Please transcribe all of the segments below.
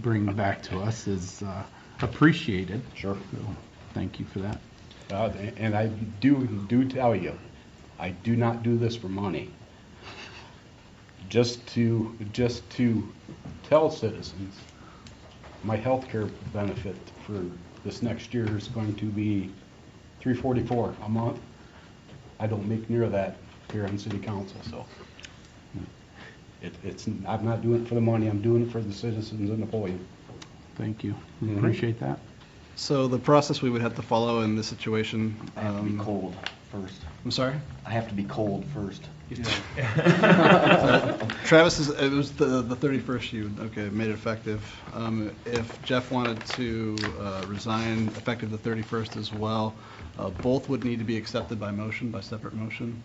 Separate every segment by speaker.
Speaker 1: bring back to us is uh, appreciated.
Speaker 2: Sure.
Speaker 1: So, Thank you for that.
Speaker 2: Uh, And I do, do tell you, I do not do this for money. Just to, just to tell citizens, my healthcare benefit for this next year is going to be three forty-four a month. I don't make near that here on city council, so. It, it's, I'm not doing it for the money, I'm doing it for the citizens and the Napoleon.
Speaker 1: Thank you.
Speaker 2: Mhm.
Speaker 1: Appreciate that.
Speaker 3: So the process we would have to follow in this situation,
Speaker 4: I have to be
Speaker 3: um,
Speaker 4: cold first.
Speaker 3: I'm sorry?
Speaker 4: I have to be cold first.
Speaker 3: Travis is, it was the, the 31st you, okay, made it effective. Um, If Jeff wanted to uh, resign effective the 31st as well, uh, both would need to be accepted by motion, by separate motion.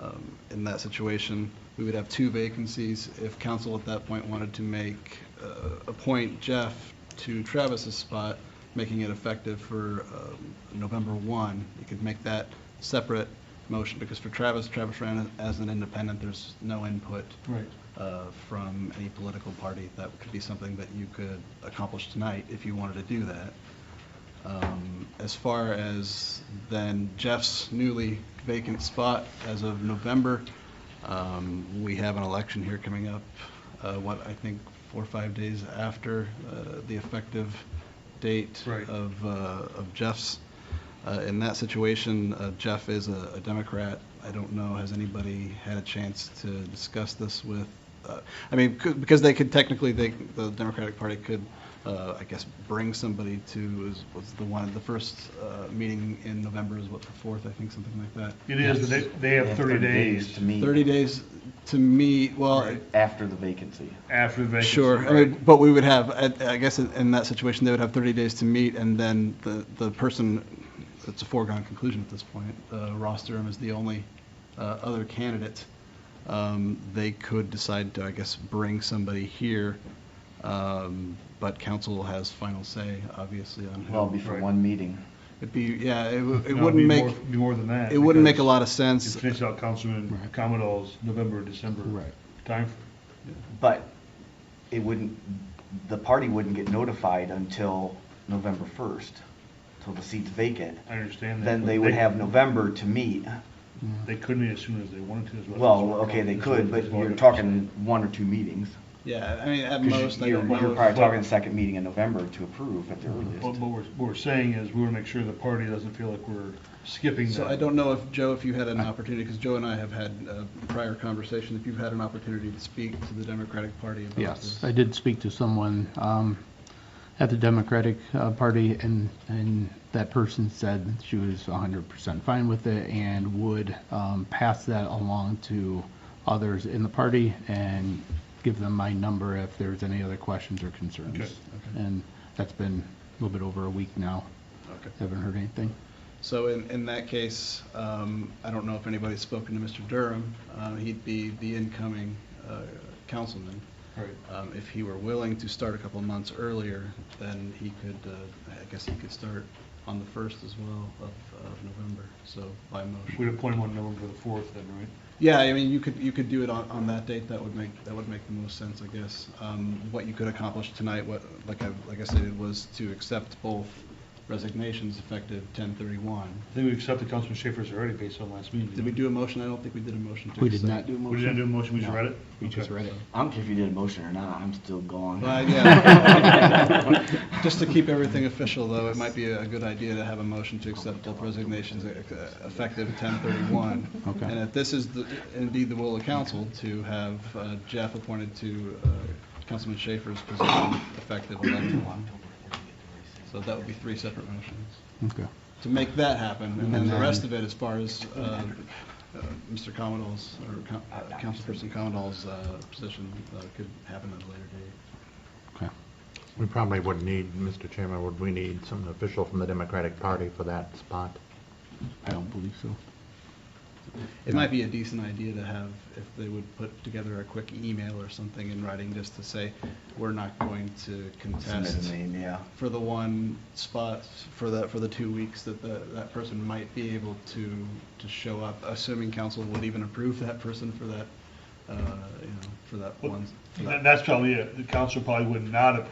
Speaker 3: Um, In that situation, we would have two vacancies. If council at that point wanted to make, uh, appoint Jeff to Travis's spot, making it effective for um, November 1, you could make that separate motion, because for Travis, Travis ran as an independent, there's no input uh, from any political party. That could be something that you could accomplish tonight if you wanted to do that. Um, As far as then Jeff's newly vacant spot as of November, um, we have an election here coming up, uh, what, I think, four or five days after uh, the effective date
Speaker 5: Right.
Speaker 3: of uh, of Jeff's. Uh, In that situation, uh, Jeff is a a Democrat. I don't know, has anybody had a chance to discuss this with, uh, I mean, could- because they could technically, they, the Democratic Party could, uh, I guess, bring somebody to, was- was the one, the first uh, meeting in November is what, the 4th, I think, something like that.
Speaker 5: It is, they, they have thirty days
Speaker 4: To meet.
Speaker 3: 30 days to meet, well,
Speaker 4: After the vacancy.
Speaker 5: after the vacancy.
Speaker 3: Sure, I mean, but we would have, I I guess in- in that situation, they would have 30 days to meet, and then the, the person, it's a foregone conclusion at this point, uh, Ross Durham is the only uh, other candidate. Um, They could decide to, I guess, bring somebody here, um, but council has final say, obviously, on
Speaker 4: Well, it'll
Speaker 3: who.
Speaker 4: be for
Speaker 5: Right.
Speaker 4: one meeting.
Speaker 3: It'd be, yeah, it wou- it
Speaker 5: No, it'd
Speaker 3: wouldn't
Speaker 5: be
Speaker 3: make,
Speaker 5: more- Be more than that.
Speaker 3: it wouldn't make a
Speaker 5: because
Speaker 3: lot of
Speaker 5: it's
Speaker 3: sense.
Speaker 5: Finish out Councilman
Speaker 1: Right.
Speaker 5: Commodore's November, December
Speaker 1: Right.
Speaker 5: time.
Speaker 4: But it wouldn't, the party wouldn't get notified until November first, till the seat's vacant.
Speaker 5: I understand that.
Speaker 4: Then
Speaker 5: but
Speaker 4: they would have November to meet.
Speaker 5: They could meet as soon as they wanted to as well.
Speaker 4: Well, okay, they could, but you're talking one or two meetings.
Speaker 3: Yeah, I mean, at
Speaker 4: 'Cause
Speaker 3: most, I
Speaker 4: You're
Speaker 3: don't
Speaker 4: you're
Speaker 3: know.
Speaker 4: probably talking second meeting in November to approve at the
Speaker 5: What,
Speaker 4: earliest.
Speaker 5: what we're, what we're saying is we want to make sure the party doesn't feel like we're skipping
Speaker 3: So
Speaker 5: that.
Speaker 3: I don't know if, Joe, if you had an opportunity, because Joe and I have had a prior conversation, if you've had an opportunity to speak to the Democratic Party about
Speaker 1: Yes,
Speaker 3: this.
Speaker 1: I did speak to someone um, at the Democratic uh, Party, and, and that person said she was 100% fine with it and would um, pass that along to others in the party and give them my number if there's any other questions or
Speaker 5: Okay,
Speaker 1: concerns. And that's been a little bit over a week now.
Speaker 3: Okay.
Speaker 1: Haven't heard anything.
Speaker 3: So in, in that case, um, I don't know if anybody's spoken to Mr. Durham. Uh, he'd be the incoming, uh, councilman.
Speaker 5: Right.
Speaker 3: Um, if he were willing to start a couple of months earlier, then he could, uh, I guess he could start on the first as well of, of November, so by motion.
Speaker 5: We'd appoint one November the fourth then, right?
Speaker 3: Yeah, I mean, you could, you could do it on, on that date, that would make, that would make the most sense, I guess. Um, What you could accomplish tonight, what, like I, like I stated, was to accept both resignations effective 10:31.
Speaker 5: I think we accepted Councilman Schaefer's already based on last meeting.
Speaker 3: Did we do a motion? I don't think we did a motion to accept.
Speaker 1: We did not do a motion.
Speaker 5: We didn't do a motion, we just
Speaker 1: No,
Speaker 5: read it?
Speaker 1: We just
Speaker 5: Okay.
Speaker 1: read it.
Speaker 4: I don't care if you did a motion or not, I'm still gone.
Speaker 3: But, yeah. Just to keep everything official, though, it might be a good idea to have a motion to accept both resignations uh, effective 10:31.
Speaker 1: Okay.
Speaker 3: And if this is the- indeed the will of council, to have uh, Jeff appointed to uh, Councilman Schaefer's position effective 11/1. So that would be three separate motions
Speaker 1: Okay.
Speaker 3: to make that happen. And then the rest of it, as far as uh, uh, Mr. Commodore's, or Coun- uh, Councilperson Commodore's uh, position, uh, could happen at a later date.
Speaker 1: Okay.
Speaker 6: We probably would need, Mr. Chairman, would we need some official from the Democratic Party for that spot?
Speaker 1: I don't believe so.
Speaker 3: It might be a decent idea to have, if they would put together a quick email or something in writing, just to say, we're not going to
Speaker 4: Submit
Speaker 3: contest
Speaker 4: a name, yeah.
Speaker 3: for the one spot, for the, for the two weeks that the, that person might be able to, to show up, assuming council would even approve that person for that, uh, you know, for that one. for that
Speaker 5: That- That's probably it. The council probably would not approve